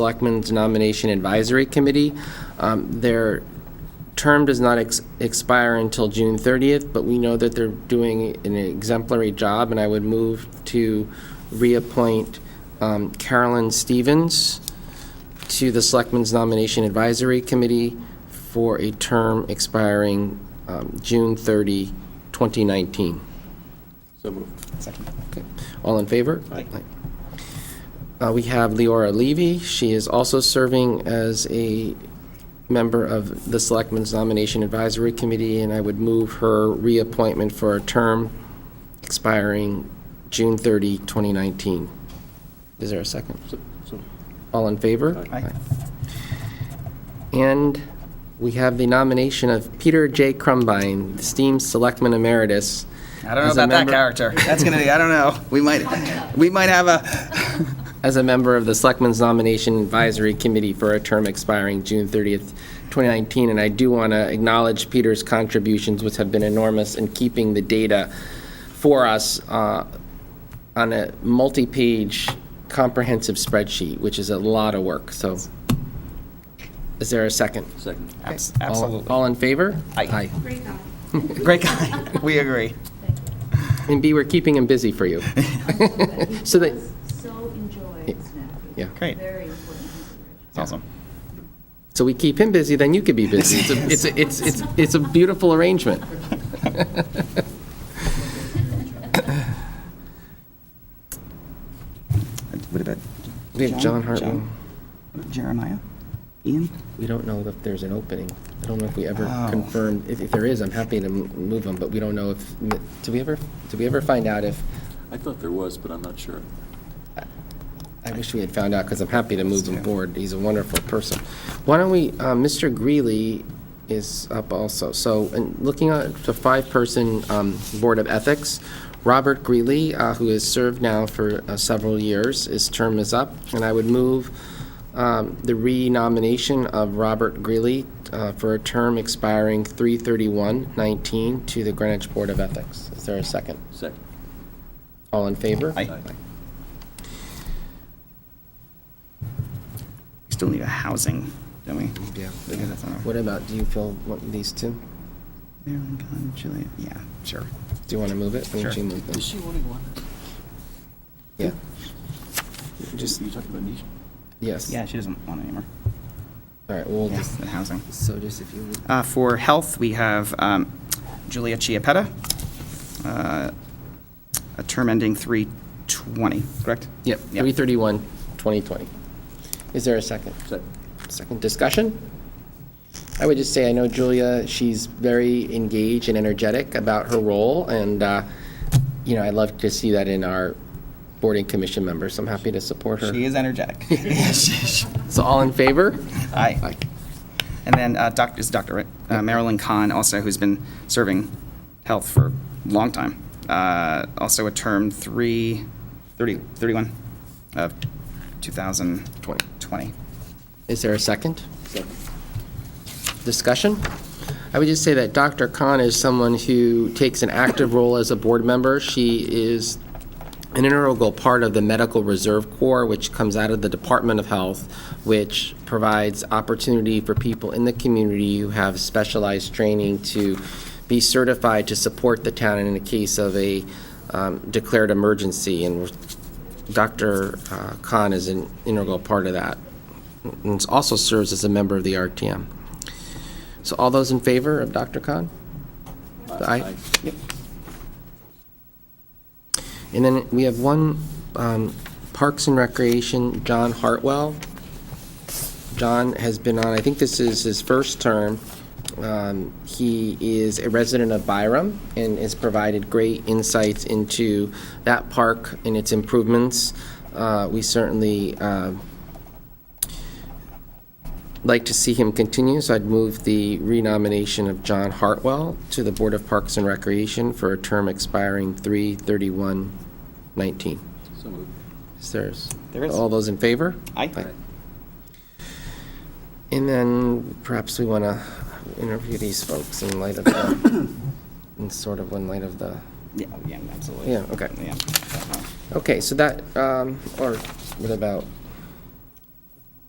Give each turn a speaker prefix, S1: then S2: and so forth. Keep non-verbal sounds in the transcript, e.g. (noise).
S1: Selectmen's Nomination Advisory Committee. Um, Their term does not ex- expire until June 30th, but we know that they're doing an exemplary job, and I would move to reappoint um, Carolyn Stevens to the Selectmen's Nomination Advisory Committee for a term expiring um, June 30, 2019.
S2: So moved.
S3: Second.
S1: Okay. All in favor?
S2: Aye.
S1: Uh, We have Leora Levy. She is also serving as a member of the Selectmen's Nomination Advisory Committee, and I would move her reappointment for a term expiring June 30, 2019. Is there a second?
S2: So- so-
S1: All in favor?
S2: Aye.
S3: Aye.
S1: And we have the nomination of Peter J. Crumbine, esteemed Selectman Emeritus.
S3: I don't know
S1: as a
S3: about that
S1: member-
S3: character. (laughs) That's gonna be. I don't know. We might. We might have a.
S1: as a member of the Selectmen's Nomination Advisory Committee for a term expiring June 30th, 2019, and I do want to acknowledge Peter's contributions, which have been enormous in keeping the data for us uh, on a multi-page comprehensive spreadsheet, which is a lot of work, so is there a second?
S2: Second.
S3: Abs-
S1: All-
S3: Absolutely.
S1: All in favor?
S3: Aye.
S4: Great guy.
S3: Great guy. (laughs) We agree.
S1: And B, we're keeping him busy for you. (laughs) So
S4: So
S1: that-
S4: that. So enjoy SNAP.
S1: Yeah.
S3: Great.
S4: Very important consideration.
S3: It's (laughs) awesome.
S1: So we keep him busy, then you could be busy. It's a- It's, a- it's, it's, it's a beautiful arrangement.
S3: What about
S1: We have John Hartwell.
S3: John? Jeremiah? Ian?
S1: We don't know if there's an opening. I don't know if we ever
S3: Oh.
S1: confirmed, if, if there is, I'm happy to m- move them, but we don't know if, did we ever, did we ever find out if,
S2: I thought there was, but I'm not sure.
S1: I wish we had found out, because I'm happy to move him
S3: Yeah.
S1: forward. He's a wonderful person. Why don't we, uh, Mr. Greeley is up also. So, and looking at the five-person um, Board of Ethics, Robert Greeley, uh, who has served now for uh, several years, his term is up, and I would move um, the renomination of Robert Greeley uh, for a term expiring 3/31/19 to the Greenwich Board of Ethics. Is there a second?
S2: Second.
S1: All in favor?
S3: Aye. We still need a housing, don't we?
S1: Yeah.
S3: Yeah, that's all right.
S1: What about, do you feel want these two?
S3: Marilyn, Colin, Julia. Yeah, sure.
S1: Do you want to move it? Why don't
S3: Sure.
S1: you move them?
S2: Is she wanting one?
S1: Yeah,
S2: Just, you talking about Nisha?
S1: yes.
S3: Yeah, she doesn't want it anymore.
S1: All right, we'll
S3: Yeah,
S1: just,
S3: that housing.
S1: so just if you would.
S3: Uh, For health, we have um, Julia Chiapetta, uh, a term ending 320, correct?
S1: Yep, 331, 2020. Is there a second?
S2: Second.
S1: Second discussion? I would just say, I know Julia, she's very engaged and energetic about her role, and, uh, you know, I love to see that in our board and commission members, so I'm happy to support her.
S3: She is energetic.
S1: (laughs) So all in favor?
S3: Aye. And then uh, doc- is Dr., right? Uh, Marilyn Kahn also, who's been serving health for a long time. Uh, Also a term 3, 30 31 of 2020.
S1: Twenty. Is there a second?
S2: Second.
S1: discussion. I would just say that Dr. Khan is someone who takes an active role as a board member. She is an integral part of the Medical Reserve Corps, which comes out of the Department of Health, which provides opportunity for people in the community who have specialized training to be certified to support the town in the case of a um, declared emergency. And Dr. uh, Khan is an integral part of that, and also serves as a member of the RTM. So all those in favor of Dr. Khan? Aye. And then we have one, um, Parks and Recreation, John Hartwell. John has been on, I think this is his first term. Um, He is a resident of Byram and has provided great insights into that park and its improvements. Uh, We certainly uh, like to see him continue, so I'd move the renomination of John Hartwell to the Board of Parks and Recreation for a term expiring 3/31/19.
S2: So moved.
S1: Is there? s-
S3: There is.
S1: All those in favor?
S3: Aye.
S2: Aye.
S1: And then perhaps we want to interview these folks in light of,
S3: (coughs)
S1: the- in sort of in light of the,
S3: Yeah, yeah, absolutely.
S1: Yeah, okay.
S3: Yeah.
S1: okay, so that, um, or what about